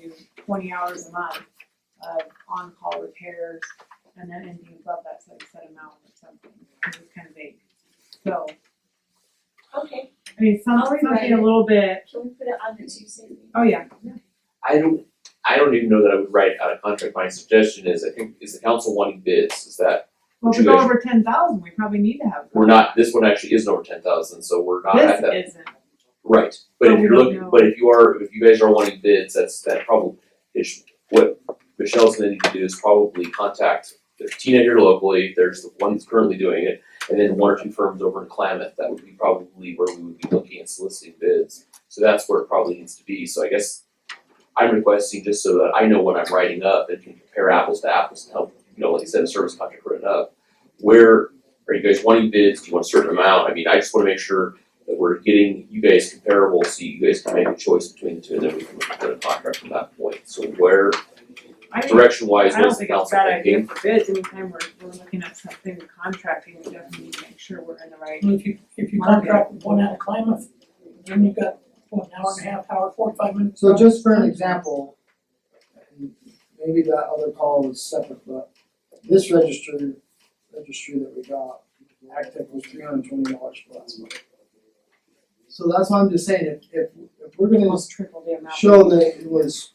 you know, do twenty hours a month of on-call repairs and then anything above that's like a set amount or something, it's kind of vague. So, Okay, I mean, some, I'll rewrite something a it. little bit, can we put it on the Tuesday meeting? oh yeah, I don't, I don't even know that I would write out a contract, my suggestion is, I think, is the council wanting bids, is that, well, if we go over ten thousand, we probably need to have. we're not, this one actually isn't over ten thousand, so we're not at that. This isn't, Right, but But if we you're don't looking, know. but if you are, if you guys are wanting bids, that's, that problem is, what Michelle's gonna need to do is probably contact, there's Tina here locally, there's the one that's currently doing it, and then one or two firms over in Klamath, that would be probably where we would be looking at soliciting bids. So that's where it probably needs to be, so I guess I'm requesting just so that I know what I'm writing up and can compare apples to apples and help, you know, like I said, a service contract written up. Where, are you guys wanting bids, do you want a certain amount, I mean, I just wanna make sure that we're getting you guys comparable, so you guys can make a choice between the two, and then we can look at a contract from that point. So where, I think direction wise, I don't what's the think it's a council bad idea thinking? for bids, anytime we're, we're looking at something contracting, we definitely need to make sure we're in the right. And If you, if you contract with one out of Klamath, then you've got, what, an hour and a half, hour, forty-five minutes. So just for an example, and maybe that other call was separate, but this register, registry that we got, Actec was three hundred and twenty dollars for last month. So that's why I'm just saying, if, if, if we're gonna Almost triple the amount. show that it was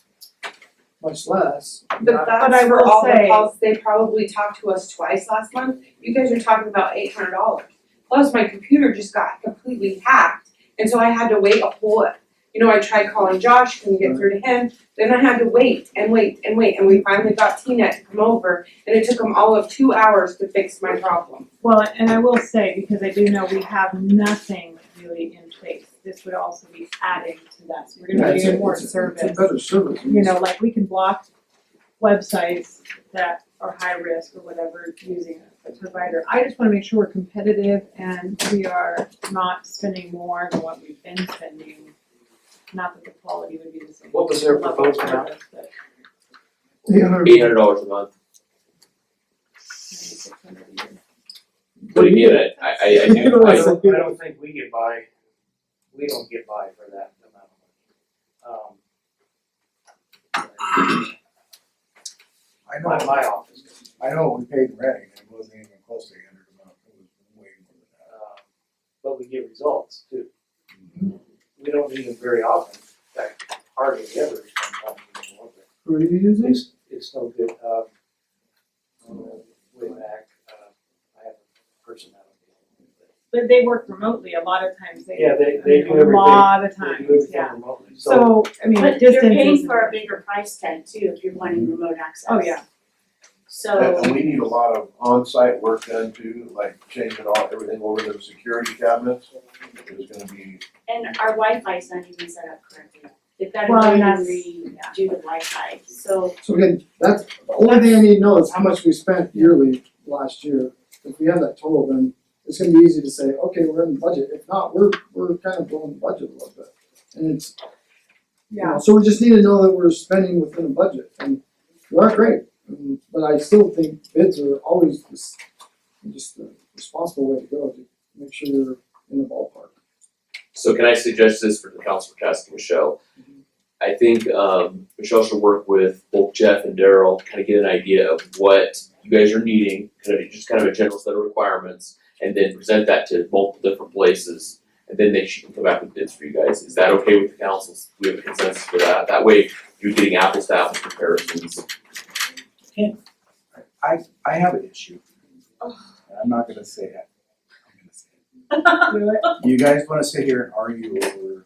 much less, But not, But I that's for will all the say- calls, they probably talked to us twice last month, you guys are talking about eight hundred dollars. Plus, my computer just got completely hacked, and so I had to wait a whole, you know, I tried calling Josh, couldn't get through to him, then I had to wait and wait and wait, and we finally got Tina to come over, and it took them all of two hours to fix my problem. Well, and I will say, because I do know we have nothing really in place, this would also be adding to that, so we're yeah, gonna it's do a, more it's a, it's a service. better service. You know, like we can block websites that are high risk or whatever using a provider. I just wanna make sure we're competitive and we are not spending more than what we've been spending. Not that the quality would be the same. What was their level of proposed amount? service, but Eight hundred dollars a month, maybe 600 a year. what do you give it? I, I, I do, I I, don't, I don't think we get by, we don't get by for that amount of money. Um. I My, know, my office, I know we paid rent, and it wasn't even close to a hundred amount, it was way more than that. um, but we get results too. We don't need them very often, in fact, hardly ever sometimes we don't want them. Who are you using? It's, it's no good, um, uh, way back, uh, I have a person out of the. But they work remotely, a lot of times they. Yeah, they, I they mean, do everything. A lot of They do times, everything yeah. remotely. So, So, I mean, But distance you're paying is- for a bigger price tag too, if you're wanting remote access. Oh, yeah. So, And, and we need a lot of on-site work done too, like changing all, everything over to the security cabinets, there's gonna be and our Wi-Fi's not even set up correctly, they've gotta Well, go in and that's- redo the Wi-Fi, so So again, that's, the only thing I need to know is how much we spent yearly last year. If we have that total, then it's gonna be easy to say, okay, we're in the budget, if not, we're, we're kind of blowing the budget a little bit. And it's, you know, Yeah, so we just need to know that we're spending within a budget, and we are great, and, but I still think bids are always just, just the responsible way to go, to make sure you're in the ballpark. so can I suggest this for the council for tasking Michelle? I think, um, Michelle should work with both Jeff and Daryl, kind of get an idea of what you guys are needing, kind of, just kind of a general set of requirements, and then present that to multiple different places and then they should come back with bids for you guys. Is that okay with the councils? We have a consensus for that. That way, you're getting apples to apples comparisons. I, I have an issue. And I'm not gonna say it. I'm gonna say do it. it. You guys wanna sit here and argue over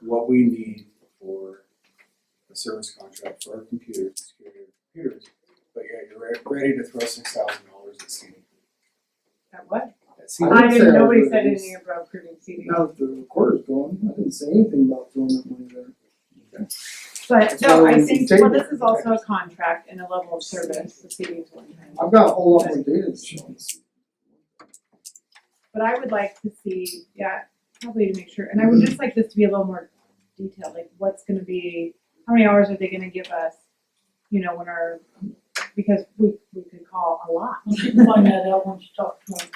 what we need for a service contract for our computers, security of computers, but yeah, you're re- ready to throw six thousand dollars at CD. That what? At I CD. I didn't say didn't, I nobody was said gonna anything about approving CDs. Now that the recorder's going, I didn't say anything about throwing that money there. But no, I So, think, table well, this is it. also a contract and a level of service, the CDs one time. I've got a whole lot more data to show us. But I would like to see, yeah, probably to make sure, and I would just like this to be a little more detailed, like what's gonna be, how many hours are they gonna give us? You know, when our, because we, we could call a lot. You can find that out once you talk to them.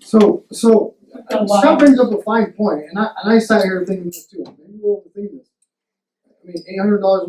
So, so, uh, Oh, wow. Scott brings up a fine point, and I, and I sat here thinking this too, maybe we're overthinking this. I mean, eight hundred dollars